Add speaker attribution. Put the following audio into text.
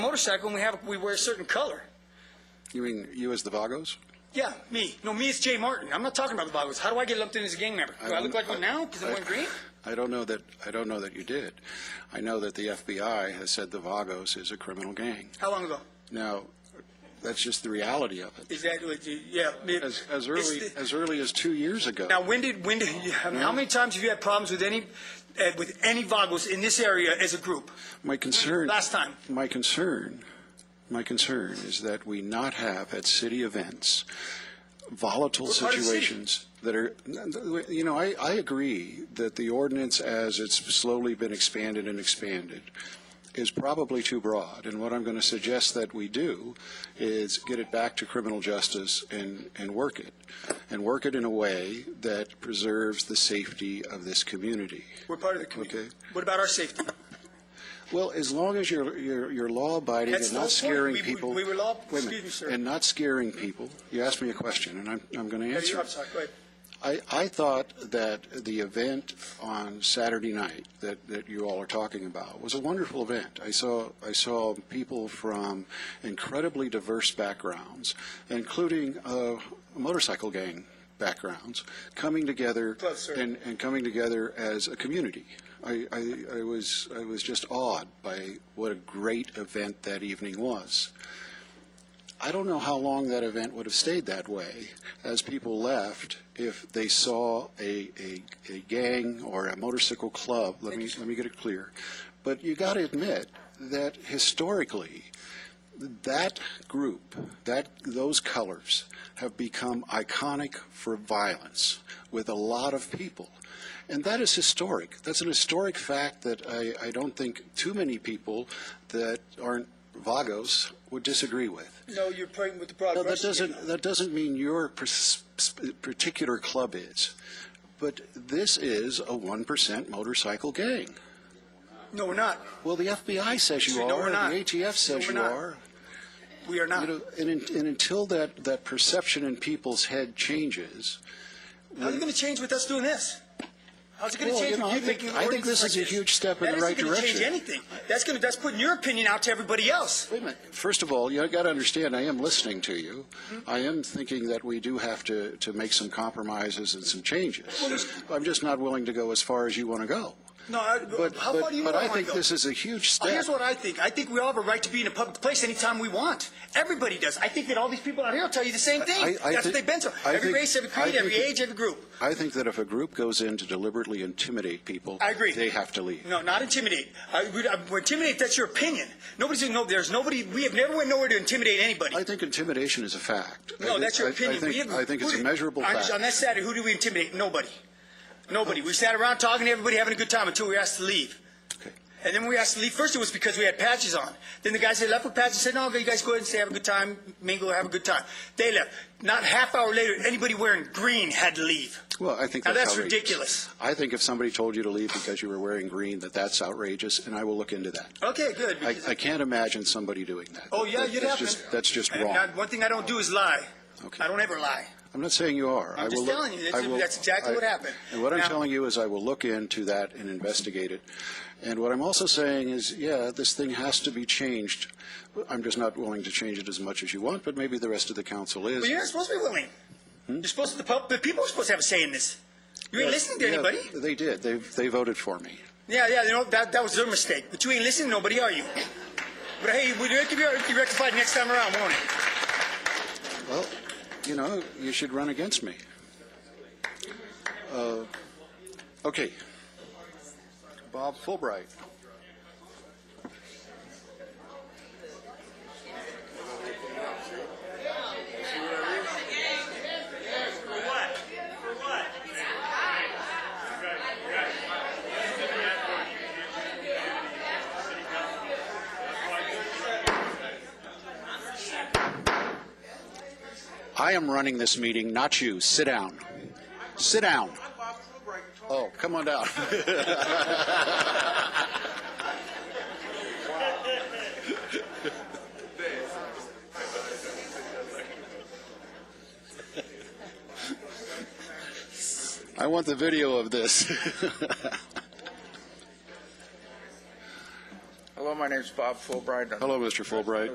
Speaker 1: motorcycle and we have, we wear a certain color.
Speaker 2: You mean you as the Vagos?
Speaker 1: Yeah, me. No, me is Jay Martin. I'm not talking about the Boggles. How do I get lumped in as a gang member? Do I, look like one now because I'm wearing green?
Speaker 2: I don't know that, I don't know that you did. I know that the FBI has said the Vagos is a criminal gang.
Speaker 1: How long ago?
Speaker 2: Now, that's just the reality of it.
Speaker 1: Is that, what you- yeah. it-
Speaker 2: As,
Speaker 1: it's
Speaker 2: as early,
Speaker 1: the-
Speaker 2: as early as two years ago.
Speaker 1: Now, when did, when did, yeah, I mean, how many times have you had problems with any, uh, with any Boggles in this area as a group?
Speaker 2: My concern.
Speaker 1: Last time.
Speaker 2: My concern, my concern is that we not have at city events volatile
Speaker 1: part of the city.
Speaker 2: situations that are, you know, I, I agree that the ordinance as it's slowly been expanded and expanded is probably too broad. And what I'm going to suggest that we do is get it back to criminal justice and, and work it. And work it in a way that preserves the safety of this community.
Speaker 1: We're part of the community.
Speaker 2: Okay.
Speaker 1: What about our safety?
Speaker 2: Well, as long as you're, you're, you're law-abiding
Speaker 1: That's
Speaker 2: and not
Speaker 1: the whole point.
Speaker 2: scaring
Speaker 1: We- we-
Speaker 2: people.
Speaker 1: we were law-
Speaker 2: Wait a minute.
Speaker 1: excuse me, sir.
Speaker 2: And not scaring people. You asked me a question, and I'm, I'm going to
Speaker 1: Yeah, you-
Speaker 2: answer.
Speaker 1: I'm sorry, go ahead.
Speaker 2: I, I thought that the event on Saturday night that, that you all are talking about was a wonderful event. I saw, I saw people from incredibly diverse backgrounds, including uh, motorcycle gang backgrounds, coming together
Speaker 1: Close, sir.
Speaker 2: and, and coming together as a community. I, I, I was I was just awed by what a great event that evening was. I don't know how long that event would have stayed that way as people left if they saw a, a, a gang or a motorcycle club. Let me, let me get it clear. But you got to admit that historically, that group, that, those colors have become iconic for violence with a lot of people. And that is historic. That's an historic fact that I, I don't think too many people that aren't Vagos would disagree with.
Speaker 1: No, you're playing with the broad
Speaker 2: No,
Speaker 1: brush.
Speaker 2: that
Speaker 1: again.
Speaker 2: doesn't, that doesn't mean your pers- sp- particular club is, but this is a 1% motorcycle gang.
Speaker 1: No, we're not.
Speaker 2: Well, the FBI says you
Speaker 1: No,
Speaker 2: are,
Speaker 1: we're not.
Speaker 2: the ATF says
Speaker 1: No,
Speaker 2: you
Speaker 1: we're not.
Speaker 2: are.
Speaker 1: We are not.
Speaker 2: You know, and, un- and until that, that perception in people's head changes,
Speaker 1: How's it going to change with us doing this? How's it going to
Speaker 2: Well,
Speaker 1: change?
Speaker 2: you know,
Speaker 1: with
Speaker 2: I
Speaker 1: you
Speaker 2: think-
Speaker 1: making
Speaker 2: I think
Speaker 1: ordinances
Speaker 2: this is
Speaker 1: like
Speaker 2: a huge step in
Speaker 1: That
Speaker 2: the right
Speaker 1: isn't gonna
Speaker 2: direction.
Speaker 1: Change anything? That's going to that's putting your opinion out to everybody else.
Speaker 2: Wait a minute. First of all, you got to understand, I am listening to you.
Speaker 1: Mm-hmm.
Speaker 2: I am thinking that we do have to, to make some compromises and some changes. I'm just not willing to go as far as you want to go.
Speaker 1: No, I,
Speaker 2: But,
Speaker 1: how far
Speaker 2: but,
Speaker 1: do you
Speaker 2: but
Speaker 1: want
Speaker 2: I
Speaker 1: to
Speaker 2: think
Speaker 1: go?
Speaker 2: this is a huge
Speaker 1: Oh,
Speaker 2: step.
Speaker 1: here's what I think. I think we all have a right to be in a public place anytime we want. Everybody does. I think that all these people out here will tell you the same thing.
Speaker 2: I- I
Speaker 1: That's what
Speaker 2: think-
Speaker 1: they've been through.
Speaker 2: I
Speaker 1: Every
Speaker 2: think-
Speaker 1: race, every
Speaker 2: I
Speaker 1: creed,
Speaker 2: think
Speaker 1: every
Speaker 2: it-
Speaker 1: age, every group.
Speaker 2: I think that if a group goes in to deliberately intimidate people,
Speaker 1: I agree.
Speaker 2: they have to leave.
Speaker 1: No, not intimidate. I, we, I, we intimidate. That's your opinion. Nobody's no. There's nobody. We have never went nowhere to intimidate anybody.
Speaker 2: I think intimidation is a fact. I
Speaker 1: No,
Speaker 2: think-
Speaker 1: that's your
Speaker 2: I-
Speaker 1: opinion.
Speaker 2: I think,
Speaker 1: We didn't-
Speaker 2: I think it's
Speaker 1: who
Speaker 2: a
Speaker 1: did-
Speaker 2: measurable
Speaker 1: on,
Speaker 2: fact.
Speaker 1: On that Saturday, who did we intimidate? Nobody. Nobody. We sat around talking to everybody, having a good time until we were asked to leave.
Speaker 2: Okay.
Speaker 1: And then when we were asked to leave, first it was because we had patches on. Then the guys that left with patches said, no, you guys go ahead and stay, have a good time, mingle, have a good time. They left. Not half hour later, anybody wearing green had to leave.
Speaker 2: Well, I think
Speaker 1: Now,
Speaker 2: that's,
Speaker 1: that's
Speaker 2: outrageous.
Speaker 1: ridiculous.
Speaker 2: I think if somebody told you to leave because you were wearing green, that that's outrageous, and I will look into that.
Speaker 1: Okay, good.
Speaker 2: I,
Speaker 1: because-
Speaker 2: I can't imagine somebody doing that.
Speaker 1: oh, yeah,
Speaker 2: That-
Speaker 1: you'd
Speaker 2: that's
Speaker 1: have
Speaker 2: just, That's just
Speaker 1: And
Speaker 2: wrong.
Speaker 1: not- one thing I don't do is lie.
Speaker 2: Okay.
Speaker 1: I don't ever lie.
Speaker 2: I'm not saying you are.
Speaker 1: I'm
Speaker 2: I
Speaker 1: just
Speaker 2: will look-
Speaker 1: telling you, that's-
Speaker 2: I will-
Speaker 1: that's exactly
Speaker 2: I-
Speaker 1: what happened.
Speaker 2: And what I'm
Speaker 1: Now-
Speaker 2: telling you is I will look into that and investigate it. And what I'm also saying is, yeah, this thing has to be changed. I'm just not willing to change it as much as you want, but maybe the rest of the council is.
Speaker 1: But you're not supposed to be willing.
Speaker 2: Hmm?
Speaker 1: You're supposed to, the, pub, the people are supposed to have a say in this. You ain't listening to
Speaker 2: Yeah,
Speaker 1: anybody.
Speaker 2: They did. They, they voted for me.
Speaker 1: Yeah, yeah, you know, that, that was their mistake. But you ain't listening to nobody, are you? But hey, we it could be it could be rectified next time around, won't it?
Speaker 2: Well, you know, you should run against me. Uh, Okay. Bob Fulbright. I am running this meeting, not you. Sit down. Sit down. Oh, come on down. I want the video of this.
Speaker 3: Hello, my
Speaker 4: My name's Bob Fulbright. I'm
Speaker 3: Hello, Mr. Fulbright.